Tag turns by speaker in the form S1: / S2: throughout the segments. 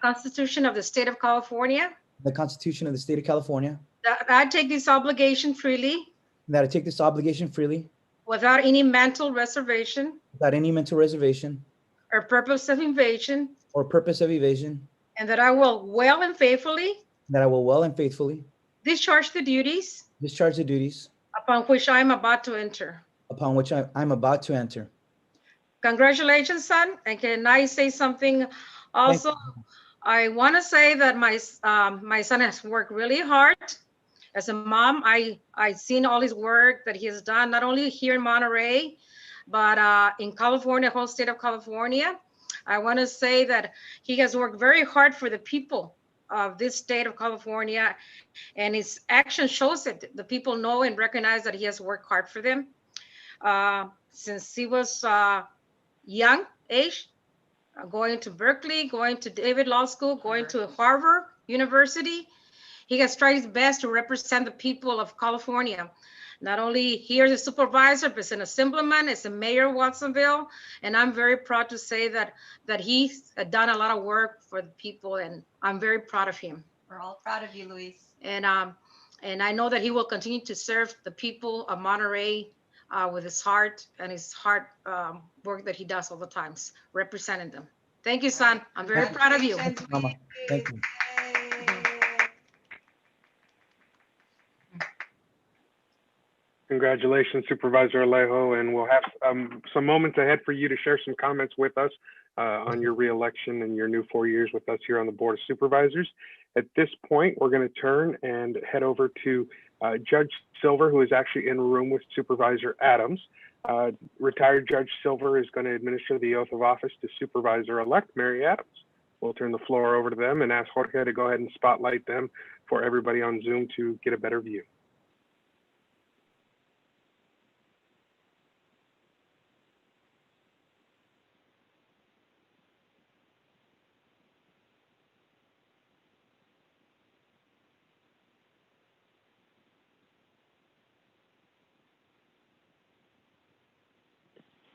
S1: Constitution of the State of California,
S2: the Constitution of the State of California,
S1: that I take this obligation freely
S2: that I take this obligation freely
S1: without any mental reservation
S2: without any mental reservation
S1: or purpose of evasion,
S2: or purpose of evasion,
S1: and that I will well and faithfully
S2: that I will well and faithfully
S1: discharge the duties
S2: discharge the duties
S1: upon which I am about to enter.
S2: upon which I am about to enter.
S1: Congratulations, son. And can I say something also? I want to say that my, s- um, my son has worked really hard. As a mom, I, I've seen all his work that he has done, not only here in Monterey, but, uh, in California, whole state of California. I want to say that he has worked very hard for the people of this state of California. And his action shows it. The people know and recognize that he has worked hard for them. Uh, since he was, uh, young age, uh, going to Berkeley, going to David Law School, going to Harvard University. He has tried his best to represent the people of California. Not only here as a supervisor, but as an assemblyman, as a mayor of Watsonville. And I'm very proud to say that, that he's done a lot of work for the people and I'm very proud of him.
S3: We're all proud of you, Luis.
S1: And, um, and I know that he will continue to serve the people of Monterey, uh, with his heart and his heart, um, work that he does all the times, representing them. Thank you, son. I'm very proud of you.
S3: Congratulations,
S2: Mama.
S3: Luis.
S2: Thank you.
S3: Yay.
S4: Congratulations Supervisor Alejo, and we'll have um, some moments ahead for you to share some comments with us uh, on your reelection and your new four years with us here on the Board of Supervisors. At this point, we're going to turn and head over to uh, Judge Silver, who is actually in room with Supervisor Adams. Uh, Retired Judge Silver is going to administer the oath of office to Supervisor-elect Mary Adams. We'll turn the floor over to them and ask Jorge to go ahead and spotlight them for everybody on Zoom to get a better view.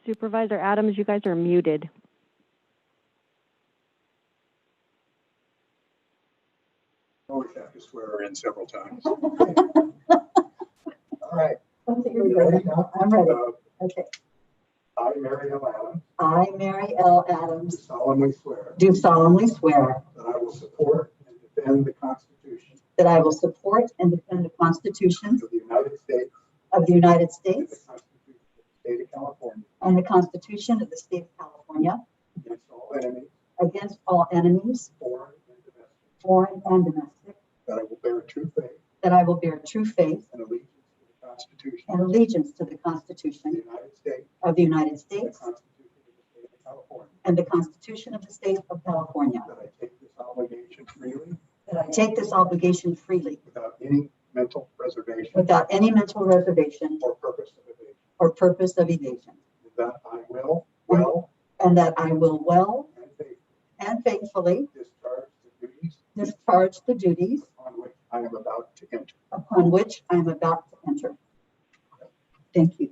S5: Supervisor Adams, you guys are muted.
S6: Always have to swear her in several times.
S7: All
S6: ready.
S7: right. I'm ready.
S6: Uh,
S7: Okay.
S6: I, Mary Ellen Adams,
S7: I, Mary L.
S6: do
S7: Adams,
S6: solemnly swear
S7: do solemnly swear
S6: that I will support and defend the Constitution
S7: that I will support and defend the Constitution
S6: of the United States
S7: of the United
S6: and the
S7: States
S6: Constitution of the State of California
S7: and the Constitution of the State of California
S6: against all enemies,
S7: against all enemies,
S6: foreign and domestic,
S7: foreign and domestic,
S6: that I will bear true faith
S7: that I will bear true faith
S6: and allegiance to the Constitution of the
S7: and allegiance to the Constitution
S6: United States
S7: of the United
S6: and the
S7: States
S6: Constitution of the State of California,
S7: and the Constitution of the State of California,
S6: that I take this obligation freely
S7: that I take this obligation freely
S6: without any mental reservation
S7: without any mental reservation
S6: or purpose of evasion,
S7: or purpose of evasion,
S6: and that I will well
S7: and that I will well
S6: and faithfully
S7: and faithfully
S6: discharge the duties
S7: discharge the duties
S6: on which I am about to enter.
S7: upon which I am about to enter. Thank you.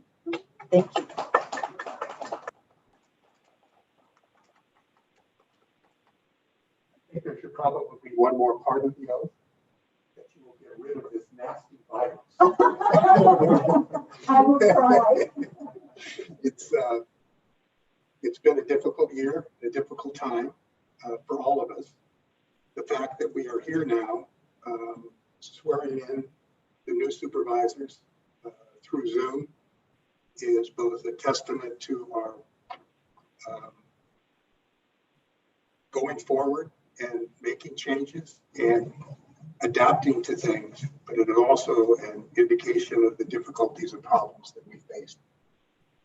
S7: Thank you.
S6: I think there should probably be one more part of the oath, that you will get rid of this nasty virus.
S7: I will try.
S6: It's, uh, it's been a difficult year, a difficult time uh, for all of us. The fact that we are here now, um, swearing in the new supervisors uh, through Zoom is both a testament to our um, going forward and making changes and adapting to things, but it is also an indication of the difficulties and problems that we face,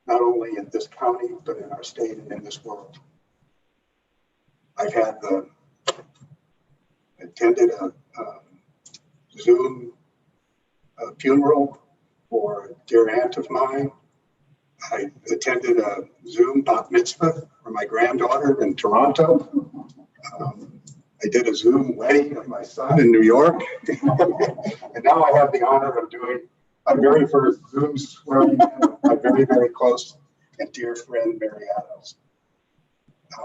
S6: not only in this county, but in our state and in this world. I've had the, attended a um, Zoom uh, funeral for a dear aunt of mine. I attended a Zoom bat mitzvah for my granddaughter in Toronto. Um, I did a Zoom wedding of my son in New York. And now I have the honor of doing my very first Zoom swearing in of my very, very close and dear friend, Mary Adams.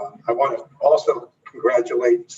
S6: Um, I want to also congratulate